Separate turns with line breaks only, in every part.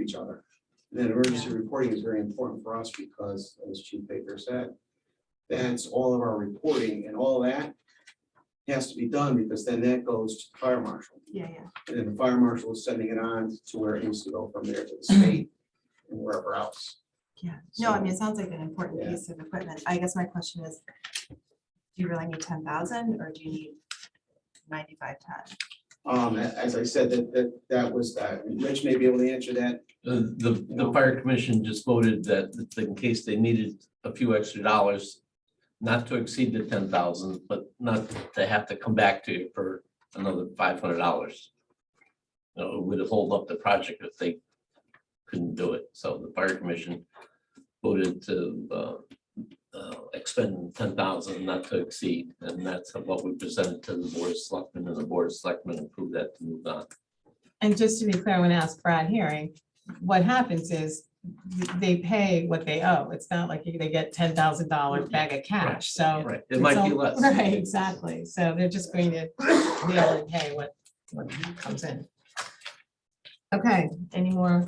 each other. And then emergency reporting is very important for us because, as Chief Baker said, that's all of our reporting and all that has to be done because then that goes to the fire marshal.
Yeah, yeah.
And then the fire marshal is sending it on to where it needs to go from there to the state and wherever else.
Yeah, no, I
So-
mean, it sounds like an important
Yeah.
piece of equipment. I guess my question is, do you really need ten thousand or do you need ninety-five ten?
Um, a- as I said, that, that, that was, that. Rich may be able to answer that.
The, Uh, the, the fire commission just voted that that in case they needed a few extra dollars, not to exceed the ten thousand, but not to have to come back to you for another five hundred dollars. You know, it would hold up the project if they couldn't do it. So the fire commission voted to, uh, uh, expend ten thousand not to exceed, and that's what we presented to the board of selectmen, and the board of selectmen approved that to move on.
And just to be clear, when asked Brad Herring, what happens is they pay what they owe. It's not like they get ten thousand dollar bag of cash, so.
Right, it might be
so-
less.
Right, exactly. So they're just going to deal and pay what, what comes in. Okay, any more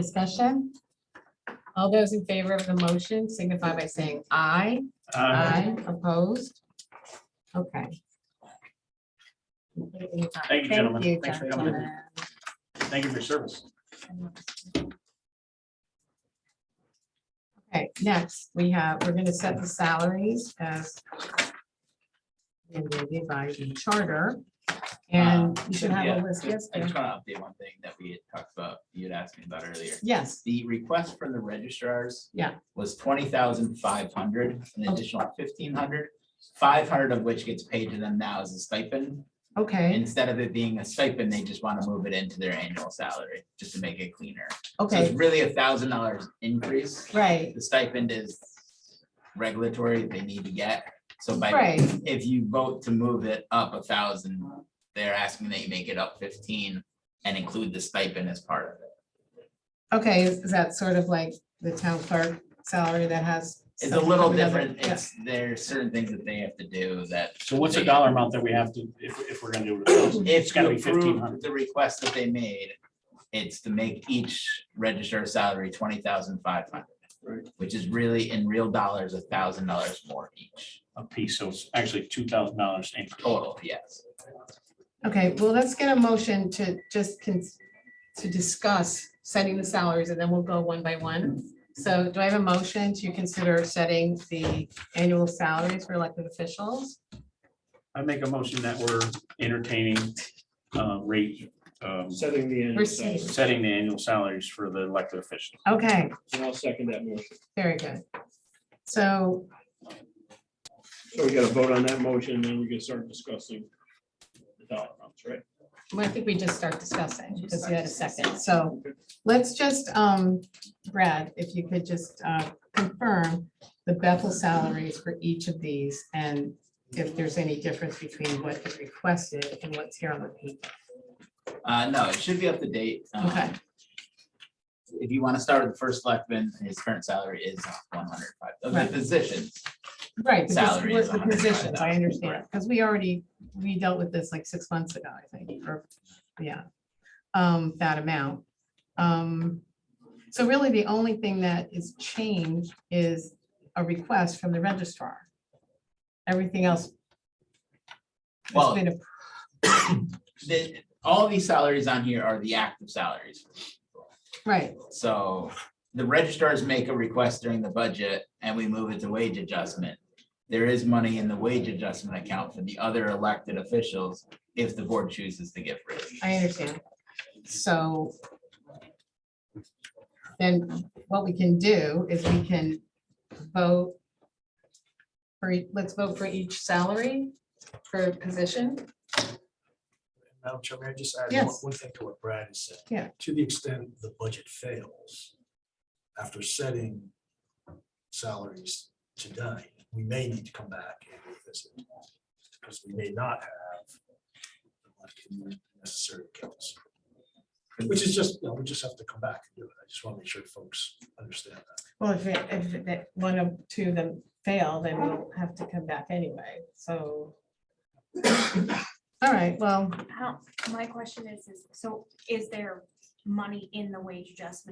discussion? All those in favor of the motion signify by saying aye. Aye. Opposed? Okay.
Thank you, gentlemen.
Thank you,
Thanks for coming in.
gentlemen.
Thank you for your service.
Okay, next, we have, we're gonna set the salaries as mandated by the charter, and
Um,
you should have
yeah,
a list, yes,
I
Dan?
just want to update one thing that we had talked about, you had asked me about earlier.
yes,
The request from the registrars.
Yeah.
Was twenty thousand five hundred, an
Oh.
additional fifteen hundred, five hundred of which gets paid to them now as a stipend.
okay,
Instead of it being a stipend, they just want to move it into their annual salary, just to make it cleaner. So it's
okay,
really a thousand dollars increase.
right,
The stipend is regulatory, they need to get, so by
right,
if you vote to move it up a thousand, they're asking that you make it up fifteen and include the stipend as part of it.
okay, is is that sort of like the town clerk salary that has?
It's a
something
little
from the other-
different. It's, there are certain things that they have to do that
So what's the dollar amount that we have to, if, if we're gonna do it? It's
if you
gotta be fifteen
approve
hundred.
the request that they made, it's to make each register salary twenty thousand five
Right.
hundred. Which is really in real dollars, a thousand dollars more each
A piece, so it's actually two thousand dollars in total.
total, yes.
yeah. Okay, well, let's get a motion to just, cons- to discuss setting the salaries, and then we'll go one by one. So do I have a motion to consider setting the annual salaries for elected officials?
I make a motion that we're entertaining uh, rate, um,
Setting the annual salary.
Proceed.
setting the annual salaries for the elected officials.
Okay,
And I'll second that motion.
Very good. So,
So we got to vote on that motion, and then we can start discussing the dollar amounts, right?
well, I think we just start discussing because you had a second. So let's just, um, Brad, if you could just, uh, confirm the Bethel salaries for each of these and if there's any difference between what is requested and what's here on the paper.
Uh, no, it should be up to date. Um,
Okay.
If you want to start with the first selectman, his current salary is uh, one hundred five, of
Right.
the positions.
Right, but just
Salary is
what the positions, I
105,000,
understand,
correct.
because we already, we dealt with this like six months ago, I think, or, yeah. Um, that amount. Um, so really the only thing that is changed is a request from the registrar. Everything else has
Well,
been, appro-
the, all these salaries on here are the active salaries.
right,
So the registrars make a request during the budget and we move it to wage adjustment. There is money in the wage adjustment account for the other elected officials if the board chooses to get rid.
I understand. So then what we can do is we can vote for, ea- let's vote for each salary for position.
Madam Chair, may I just add one-
Yes.
one thing to what Brad has said?
Yeah.
To the extent the budget fails after setting salaries today, we may need to come back and revisit. Because we may not have the necessary accounts. Which is just, you know, we just have to come back and do it. I just want to make sure folks understand that.
Well, if, it- if that one of two of them fail, then we'll have to come back anyway, so. All right, well,
How, my question is, is, so is there money in the wage adjustment